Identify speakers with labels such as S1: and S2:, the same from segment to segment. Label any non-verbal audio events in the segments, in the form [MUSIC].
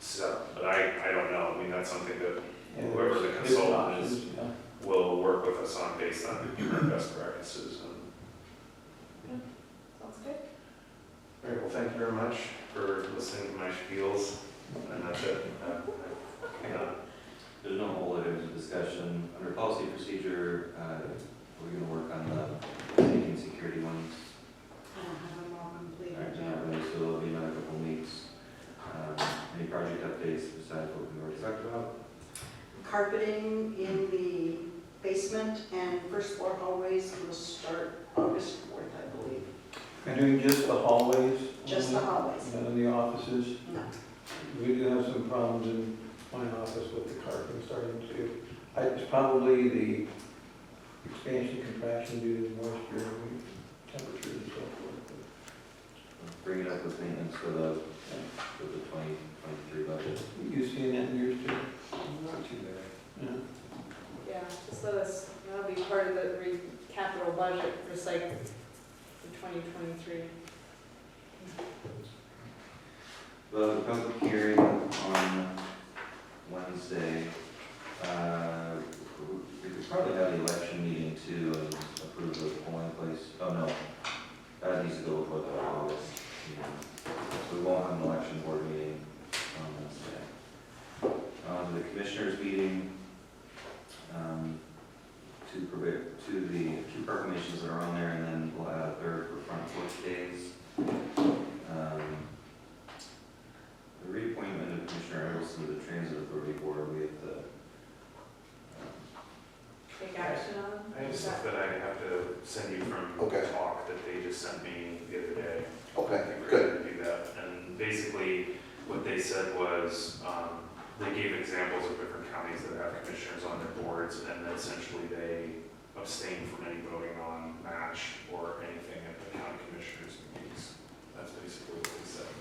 S1: So, but I, I don't know, I mean, that's something that
S2: And
S1: Whoever the
S2: there's
S1: consultant is.
S2: options, yeah.
S1: will work with us on based on current best practices. And,
S3: Sounds good.
S1: all right, well, thank you very much for listening to my spiels, and that's it. Uh, I- I- uh,
S4: There's no whole other discussion. Under policy procedure, uh, we're gonna work on the safety and security ones.
S3: I don't have them all completed
S4: Alright,
S3: yet.
S4: and so there'll be another couple weeks. Um, Any project updates besides what we already talked about?
S3: Carpeting in the basement and first floor hallways will start August fourth, I believe.
S2: And doing just the hallways?
S3: Just the
S2: only,
S3: hallways.
S2: None of the offices?
S3: No.
S2: We do have some problems in my office with the carpet starting to, I- it's probably the expansion contraction due to moisture and temperature and so forth.
S4: Bring it up with maintenance for the, for the twenty twenty-three budget.
S2: but You seen that in yours too?
S4: Not too bad.
S2: Yeah.
S5: Yeah, just let us, that'll be part of the re- capital budget recycle for twenty twenty-three.
S4: We'll have a public hearing on Wednesday. Uh, We could probably have the election meeting too, and approve the polling place, oh no, that needs to go before the August. meeting. So we won't have an election board meeting on Wednesday. Um, The commissioners meeting, um, to prepare, to the two proclamations that are on there, and then we'll add a third for front porch days. Um, the reappointment of Commissioner Edelson to the Transit Authority Board, we have to. um,
S5: Take action on?
S1: I have stuff that I have to send you from
S6: Okay.
S1: talk that they just sent me the other day. I
S6: Okay,
S1: think we're
S6: good.
S1: gonna Do that, and basically, what they said was, um, they gave examples of different counties that have commissioners on their boards, and then essentially they abstain from any voting on match or anything at the county commissioners meetings. That's basically what they said.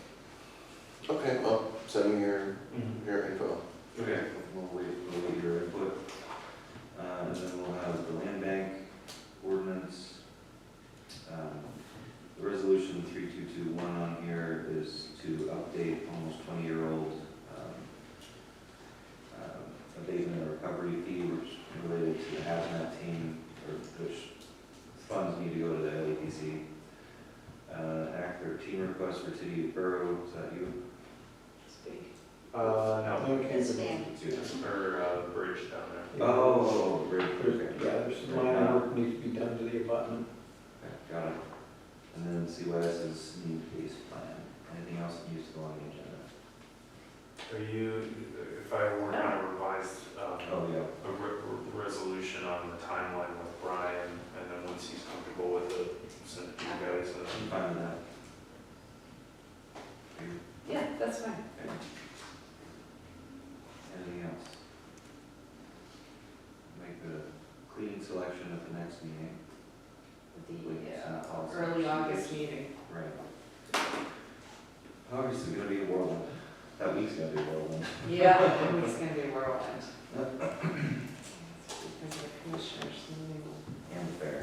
S6: Okay, well, send me your,
S1: Mm-hmm.
S6: your info.
S4: Okay. We'll wait, we'll wait your input. Uh, and then we'll have the land bank ordinance. Um, The resolution three two two one on here is to update almost twenty-year-old, um, um, abatement or recovery fee, which related to the hazmat team, or which funds need to go to the LEDC. Uh, Act thirteen request for city of borough, is that you?
S5: Speak.
S1: Uh,
S2: Okay,
S3: It's
S2: but-
S3: Dan.
S4: It's you.
S1: no, or, uh, bridge down there.
S4: Oh, great, okay.
S2: There's- Yeah, there's some minor work needs to be done to the abutment.
S4: Got it. And then CYS is new base plan. Anything else that needs to go on the agenda?
S1: Are you, if I were on a revised, um,
S4: Oh, yeah.
S1: a re- re- resolution on the timeline with Brian, and then once he's comfortable with it, send it to you guys, and
S4: I'm fine with that. You-
S5: Yeah, that's fine.
S4: okay. Anything else? Make the cleaning selection at the next meeting. Wait, it's not policy.
S5: Early August meeting.
S4: Right. August is gonna be a whirlwind. That week's gonna be a whirlwind.
S5: Yeah, it's gonna be a whirlwind. Because the commissioners, meeting will-
S4: And fair.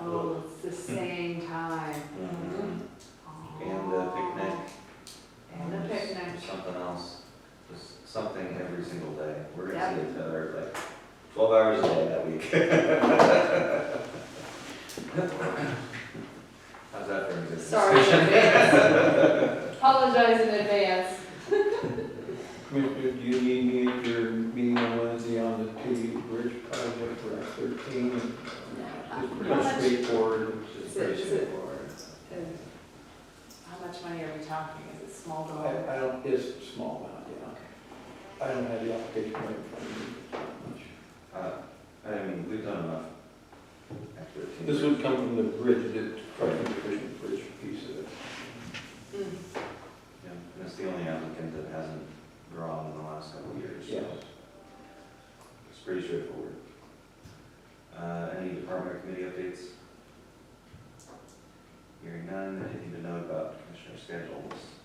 S5: oh, it's the same time. Mm-hmm. Oh.
S4: Mhm. Hmm. And the picnic.
S5: And the
S4: There's
S5: picnic.
S4: Something else, just something every single day. We're gonna see
S5: Yep.
S4: each other like twelve hours a day that week. [LAUGHS] How's that for a good?
S5: Sorry, in advance. Apologize in advance.
S2: Commissioner, do you need me at your meeting on Wednesday on the two bridge project for Act thirteen? It's pretty
S5: How much-
S2: straightforward.
S4: It's
S5: Is it-
S4: pretty
S5: is it-
S4: straightforward.
S5: And How much money are we talking? Is it small
S2: I,
S5: dollar?
S2: I don't, it's a small amount, yeah. I don't have the application right in front of me. it's not much.
S4: Uh, I mean, we've done enough. After a few
S2: This
S4: years.
S2: would come from the bridge, the Crossing Division Bridge piece of it.
S5: Mm.
S4: Yeah, And it's the only applicant that hasn't drawn in the last couple of years. so
S2: Yes.
S4: It's pretty straightforward. Uh, any department or committee updates? Hearing none, anything to note about commissioner schedules?
S5: Um,
S4: uh,